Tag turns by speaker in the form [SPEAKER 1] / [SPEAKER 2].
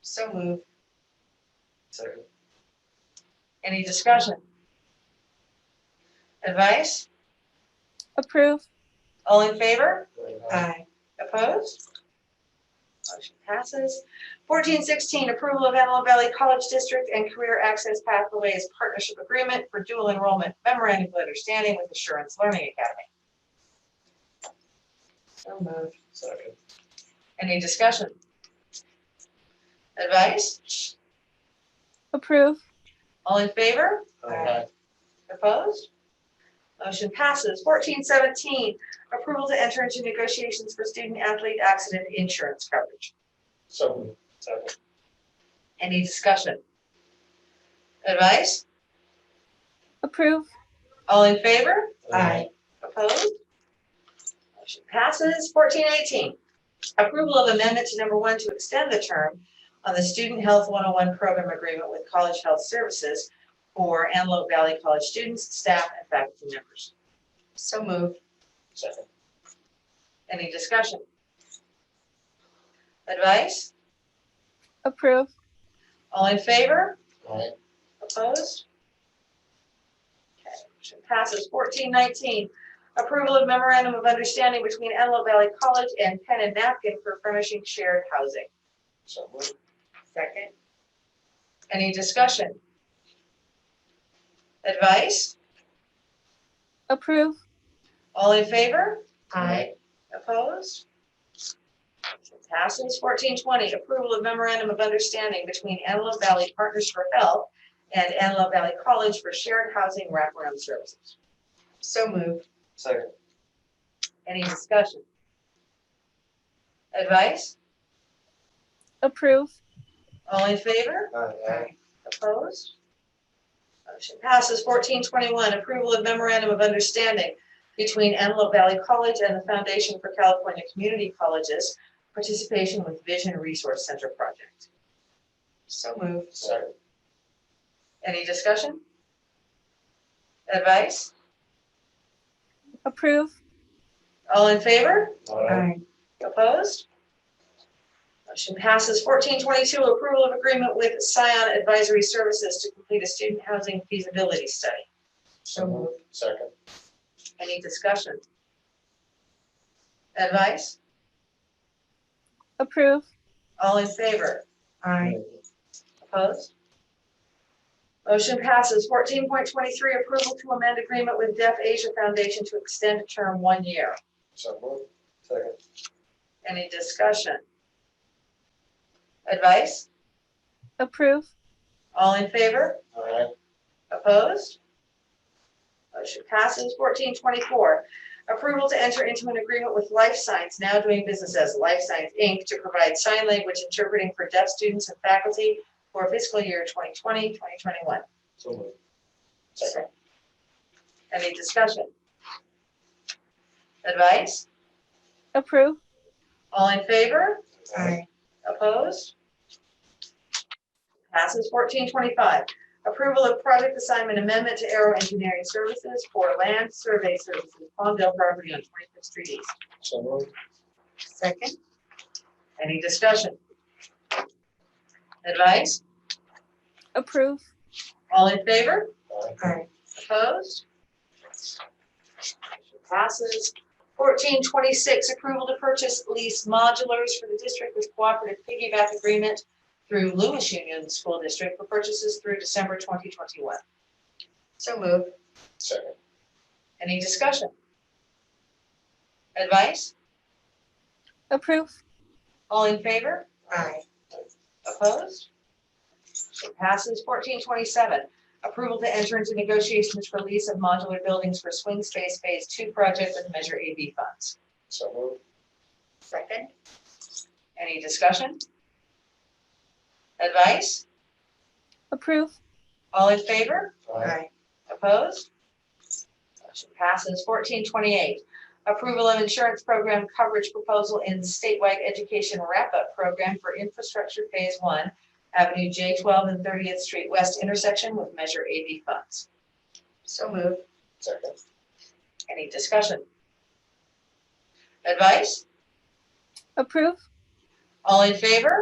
[SPEAKER 1] So moved.
[SPEAKER 2] Second.
[SPEAKER 1] Any discussion? Advice?
[SPEAKER 3] approve,
[SPEAKER 1] All in favor?
[SPEAKER 2] Aye.
[SPEAKER 1] Aye. Opposed? Motion passes. Fourteen sixteen, approval of Antelope Valley College District and Career Access Pathways Partnership Agreement for Dual Enrollment Memorandum of Understanding with Assurance Learning Academy. So moved.
[SPEAKER 2] Second.
[SPEAKER 1] Any discussion? Advice?
[SPEAKER 3] approve,
[SPEAKER 1] All in favor?
[SPEAKER 2] Aye.
[SPEAKER 1] Opposed? Motion passes. Fourteen seventeen, approval to enter into negotiations for student athlete accident insurance coverage.
[SPEAKER 2] So moved. Second.
[SPEAKER 1] Any discussion? Advice?
[SPEAKER 3] approve,
[SPEAKER 1] All in favor?
[SPEAKER 2] Aye.
[SPEAKER 1] Opposed? Motion passes. Fourteen eighteen. Approval of amendment to number one to extend the term on the Student Health 101 Program Agreement with College Health Services for Antelope Valley College students, staff, and faculty members. So moved.
[SPEAKER 2] Second.
[SPEAKER 1] Any discussion? Advice?
[SPEAKER 3] approve,
[SPEAKER 1] All in favor?
[SPEAKER 2] Aye.
[SPEAKER 1] Opposed? Okay, motion passes. Fourteen nineteen, approval of memorandum of understanding between Antelope Valley College and Pen and Napkin for furnishing shared housing.
[SPEAKER 2] So moved.
[SPEAKER 1] Second. Any discussion? Advice?
[SPEAKER 3] approve,
[SPEAKER 1] All in favor?
[SPEAKER 2] Aye.
[SPEAKER 1] Opposed? Motion Passes. Fourteen twenty, approval of memorandum of understanding between Antelope Valley Partners for Health and Antelope Valley College for shared housing wraparound services. So moved.
[SPEAKER 2] Second.
[SPEAKER 1] Any discussion? Advice?
[SPEAKER 3] approve,
[SPEAKER 1] All in favor?
[SPEAKER 2] Aye.
[SPEAKER 1] Opposed? Motion passes. Fourteen twenty-one, approval of memorandum of understanding between Antelope Valley College and the Foundation for California Community Colleges, participation with Vision Resource Center project. So moved.
[SPEAKER 2] Second.
[SPEAKER 1] Any discussion? Advice?
[SPEAKER 3] approve,
[SPEAKER 1] All in favor?
[SPEAKER 2] Aye.
[SPEAKER 1] Opposed? Motion passes. Fourteen twenty-two, approval of agreement with Scion Advisory Services to complete a student housing feasibility study.
[SPEAKER 2] So moved. Second.
[SPEAKER 1] Any discussion? Advice?
[SPEAKER 3] approve,
[SPEAKER 1] All in favor?
[SPEAKER 2] Aye.
[SPEAKER 1] Opposed? Motion passes. Fourteen point twenty-three, approval to amend agreement with Deaf Asia Foundation to extend term one year.
[SPEAKER 2] So moved. Second.
[SPEAKER 1] Any discussion? Advice?
[SPEAKER 3] approve,
[SPEAKER 1] All in favor?
[SPEAKER 2] Aye.
[SPEAKER 1] Opposed? Motion passes. Fourteen twenty-four, approval to enter into an agreement with Life Science, now doing business as Life Science Inc., to provide sign language interpreting for deaf students and faculty for fiscal year 2020, 2021.
[SPEAKER 2] So moved. Second.
[SPEAKER 1] Any discussion? Advice?
[SPEAKER 3] approve,
[SPEAKER 1] All in favor?
[SPEAKER 2] Aye.
[SPEAKER 1] Opposed? Passes fourteen twenty-five. Approval of project assignment amendment to Aero Engineering Services for land survey services, Palmdale property on Twenty-Fifth Street East.
[SPEAKER 2] So moved.
[SPEAKER 1] Second. Any discussion? Advice?
[SPEAKER 3] approve,
[SPEAKER 1] All in favor?
[SPEAKER 2] Aye.
[SPEAKER 1] Opposed? Passes. Fourteen twenty-six, approval to purchase lease modulars for the district with cooperative piggyback agreement through Lewis Union School District for purchases through December twenty twenty-one. So moved.
[SPEAKER 2] Second.
[SPEAKER 1] Any discussion? Advice?
[SPEAKER 3] approve,
[SPEAKER 1] All in favor?
[SPEAKER 2] Aye.
[SPEAKER 1] Opposed? It passes. Fourteen twenty-seven, approval to enter into negotiations for lease of modular buildings for swing space phase two project with Measure AB funds.
[SPEAKER 2] So moved.
[SPEAKER 1] Second. Any discussion? Advice?
[SPEAKER 3] approve,
[SPEAKER 1] All in favor?
[SPEAKER 2] Aye.
[SPEAKER 1] Opposed? Motion passes. Fourteen twenty-eight, approval of insurance program coverage proposal in statewide education wrap-up program for infrastructure phase one, Avenue J twelve and Thirtieth Street West intersection with Measure AB funds. So moved.
[SPEAKER 2] Second.
[SPEAKER 1] Any discussion? Advice?
[SPEAKER 3] approve,
[SPEAKER 1] All in favor?